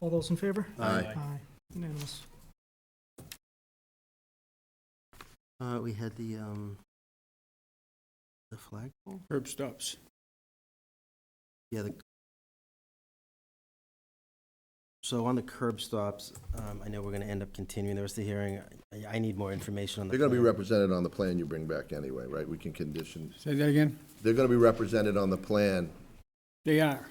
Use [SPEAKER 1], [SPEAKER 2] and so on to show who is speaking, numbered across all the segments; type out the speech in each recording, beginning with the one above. [SPEAKER 1] All those in favor?
[SPEAKER 2] Aye.
[SPEAKER 1] Aye, unanimous.
[SPEAKER 3] Uh, we had the, um, the flagpole?
[SPEAKER 2] Herb stops.
[SPEAKER 3] Yeah, the. So on the curb stops, um, I know we're gonna end up continuing the rest of the hearing. I, I need more information on the.
[SPEAKER 4] They're gonna be
[SPEAKER 3] plan.
[SPEAKER 4] represented on the plan you bring back anyway, right? We can condition,
[SPEAKER 2] Say that again?
[SPEAKER 4] they're gonna be represented on the plan,
[SPEAKER 2] They are,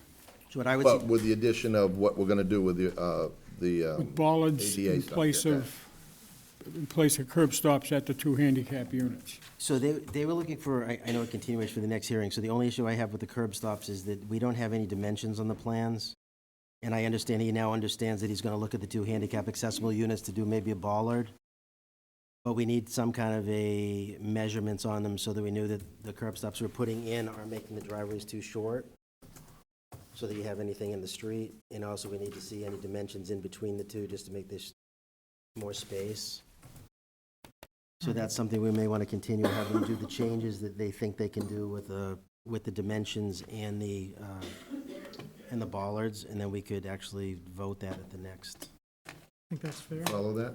[SPEAKER 3] So What I would,
[SPEAKER 4] but
[SPEAKER 3] su-
[SPEAKER 4] with the addition of what we're gonna do with the, uh, the, um,
[SPEAKER 2] with bollards
[SPEAKER 4] ADA
[SPEAKER 2] in
[SPEAKER 4] stuff,
[SPEAKER 2] place
[SPEAKER 4] yeah.
[SPEAKER 2] of, in place of curb stops at the two handicap units.
[SPEAKER 3] so they, they were looking for, I, I know a continuation for the next hearing, so the only issue I have with the curb stops is that we don't have any dimensions on the plans. And I understand, he now understands that he's gonna look at the two handicap accessible units to do maybe a bollard. But we need some kind of a measurements on them so that we knew that the curb stops we're putting in are making the driveways too short. So that you have anything in the street, and also we need to see any dimensions in between the two, just to make this more space. So
[SPEAKER 2] Mm-hmm.
[SPEAKER 3] that's something we may want to continue, have them do the changes that they think they can do with the, with the dimensions and the, uh, and the bollards, and then we could actually vote that at the next.
[SPEAKER 1] I think that's fair.
[SPEAKER 4] follow that?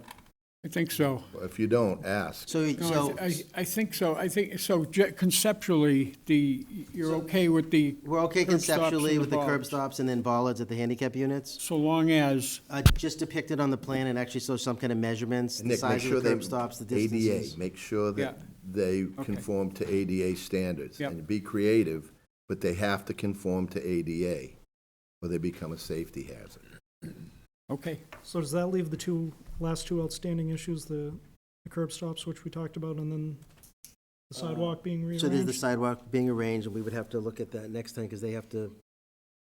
[SPEAKER 2] I think so.
[SPEAKER 4] Well, If you don't, ask.
[SPEAKER 3] So,
[SPEAKER 2] No,
[SPEAKER 3] so,
[SPEAKER 2] I, th- I I think so. I think, so ge- conceptually, the, you're okay with the,
[SPEAKER 3] we're okay
[SPEAKER 2] Curb stops and
[SPEAKER 3] conceptually with the curb
[SPEAKER 2] bollards.
[SPEAKER 3] stops and then bollards at the handicap units?
[SPEAKER 2] so long as,
[SPEAKER 3] Uh, Just depicted on the plan and actually show some kind of measurements, the
[SPEAKER 4] Nick, make
[SPEAKER 3] size of
[SPEAKER 4] sure
[SPEAKER 3] the
[SPEAKER 4] they.
[SPEAKER 3] curb stops, the distances.
[SPEAKER 4] ADA, make sure that
[SPEAKER 2] Yeah.
[SPEAKER 4] they
[SPEAKER 2] Okay.
[SPEAKER 4] conform to ADA standards.
[SPEAKER 2] Yep.
[SPEAKER 4] And be creative, but they have to conform to ADA, or they become a safety hazard.
[SPEAKER 2] okay,
[SPEAKER 1] So does that leave the two, last two outstanding issues, the the curb stops, which we talked about, and then the sidewalk being
[SPEAKER 3] Uh, So there's the
[SPEAKER 1] rearranged?
[SPEAKER 3] sidewalk being arranged, and we would have to look at that next time, because they have to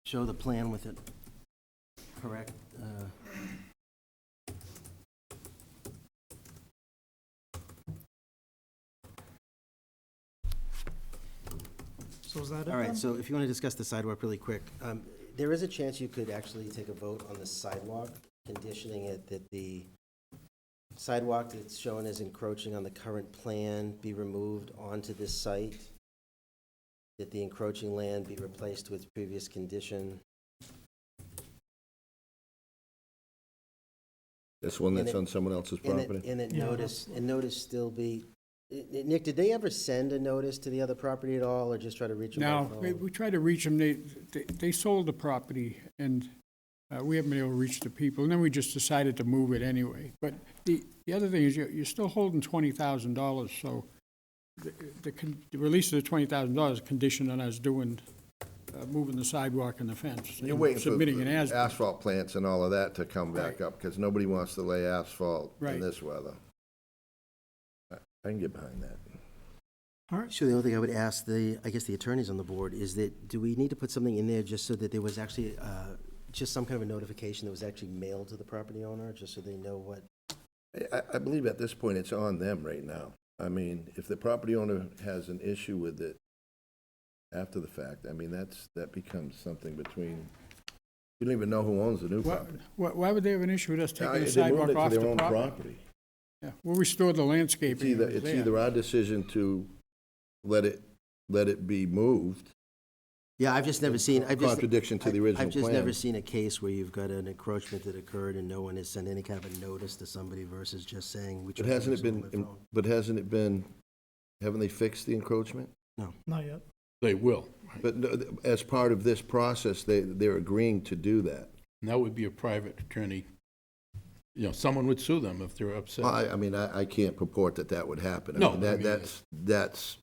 [SPEAKER 3] show the plan with it. Correct? Uh,
[SPEAKER 1] So is that it
[SPEAKER 3] All
[SPEAKER 1] then?
[SPEAKER 3] right, so if you want to discuss the sidewalk really quick, um, there is a chance you could actually take a vote on the sidewalk, conditioning it that the sidewalk that's shown as encroaching on the current plan be removed onto this site, that the encroaching land be replaced with previous condition.
[SPEAKER 4] This one
[SPEAKER 3] And
[SPEAKER 4] that's
[SPEAKER 3] it-
[SPEAKER 4] on someone else's
[SPEAKER 3] And that-
[SPEAKER 4] property?
[SPEAKER 3] And that
[SPEAKER 1] Yeah,
[SPEAKER 3] notice,
[SPEAKER 1] that's-
[SPEAKER 3] and notice still be, N- N- Nick, did they ever send a notice to the other property at all, or just try to reach them
[SPEAKER 2] now,
[SPEAKER 3] by
[SPEAKER 4] uh,
[SPEAKER 2] we-
[SPEAKER 3] phone?
[SPEAKER 2] we tried to reach them, they, they- they sold the property, and uh, we haven't been able to reach the people, and then we just decided to move it anyway. But the, the other thing is, you're, you're still holding twenty thousand dollars, so the, the con- the release of the twenty thousand dollars is conditioned on us doing, uh, moving the sidewalk and the fence.
[SPEAKER 4] You're
[SPEAKER 2] and
[SPEAKER 4] waiting for
[SPEAKER 2] Submitting an
[SPEAKER 4] the
[SPEAKER 2] as.
[SPEAKER 4] asphalt plants and all of that to come back
[SPEAKER 2] Right.
[SPEAKER 4] up, because nobody wants to lay asphalt in
[SPEAKER 2] Right.
[SPEAKER 4] this weather. I I can get behind that.
[SPEAKER 1] All right,
[SPEAKER 3] Sure, the only thing I would ask the, I guess the attorneys on the board is that, do we need to put something in there just so that there was actually, uh, just some kind of a notification that was actually mailed to the property owner, just so they know what?
[SPEAKER 4] I- I, I believe at this point, it's on them right now. I mean, if the property owner has an issue with it after the fact, I mean, that's, that becomes something between, you don't even know who owns the new
[SPEAKER 2] Why,
[SPEAKER 4] property.
[SPEAKER 2] why- why would they have an issue with us
[SPEAKER 4] Now,
[SPEAKER 2] taking the
[SPEAKER 4] they moved it
[SPEAKER 2] sidewalk
[SPEAKER 4] to
[SPEAKER 2] off
[SPEAKER 4] their
[SPEAKER 2] the
[SPEAKER 4] own
[SPEAKER 2] property? Yeah, We'll restore the
[SPEAKER 4] It's
[SPEAKER 2] landscaping.
[SPEAKER 4] either,
[SPEAKER 2] that was
[SPEAKER 4] it's
[SPEAKER 2] there.
[SPEAKER 4] either our decision to let it, let it be moved,
[SPEAKER 3] Yeah, I've just never seen, I've just.
[SPEAKER 4] Contradiction to the
[SPEAKER 3] I-
[SPEAKER 4] original
[SPEAKER 3] I've just never
[SPEAKER 4] plan.
[SPEAKER 3] seen a case where you've got an encroachment that occurred and no one has sent any kind of a notice to somebody versus just saying, we
[SPEAKER 4] but
[SPEAKER 3] tried to
[SPEAKER 4] hasn't
[SPEAKER 3] reach
[SPEAKER 4] it
[SPEAKER 3] them by
[SPEAKER 4] been,
[SPEAKER 3] phone.
[SPEAKER 4] but hasn't it been, haven't they fixed the encroachment?
[SPEAKER 1] not yet.
[SPEAKER 5] They will.
[SPEAKER 4] But no, th- as part of this process, they, they're agreeing to do that.
[SPEAKER 5] And that would be a private attorney. You know, someone would sue them if they're upset.
[SPEAKER 4] I, I mean, I, I can't purport that that would happen. I
[SPEAKER 5] No,
[SPEAKER 4] mean,
[SPEAKER 5] I
[SPEAKER 4] That,
[SPEAKER 5] mean-
[SPEAKER 4] that's, that's,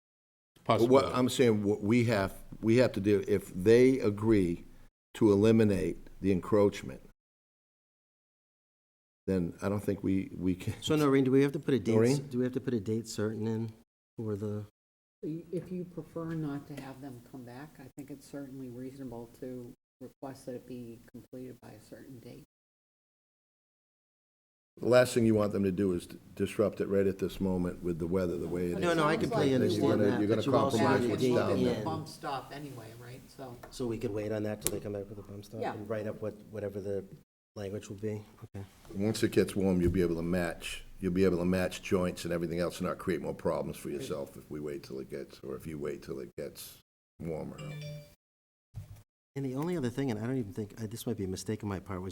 [SPEAKER 5] Possibly.
[SPEAKER 4] what, I'm saying, what we have, we have to do, if they agree to eliminate the encroachment, then I don't think we, we can.
[SPEAKER 3] So Noreen, do we have to put a
[SPEAKER 4] Noreen?
[SPEAKER 3] date, do we have to put a date certain in for the?
[SPEAKER 6] If you prefer not to have them come back, I think it's certainly reasonable to request that it be completed by a certain date.
[SPEAKER 4] The last thing you want them to do is disrupt it right at this moment with the weather, the way it is.
[SPEAKER 3] No, no, I completely
[SPEAKER 6] Sounds like you
[SPEAKER 3] understand
[SPEAKER 6] wanna-
[SPEAKER 3] that.
[SPEAKER 4] you're gonna
[SPEAKER 3] but you also
[SPEAKER 4] compromise
[SPEAKER 3] have
[SPEAKER 6] Back
[SPEAKER 3] to
[SPEAKER 6] and
[SPEAKER 4] what's
[SPEAKER 3] date
[SPEAKER 4] down
[SPEAKER 6] look at
[SPEAKER 4] there.
[SPEAKER 6] the
[SPEAKER 3] in.
[SPEAKER 6] Bump stop anyway, right? So,
[SPEAKER 3] So we could wait on that till they come back with a bump stop?
[SPEAKER 6] Yeah.
[SPEAKER 3] And write up what, whatever the language will be? Okay.
[SPEAKER 4] Once it gets warm, you'll be able to match, you'll be able to match joints and everything else and not create more problems for yourself if we wait till it gets, or if you wait till it gets warmer.
[SPEAKER 3] And the only other thing, and I don't even think, uh, this might be a mistake on my part, was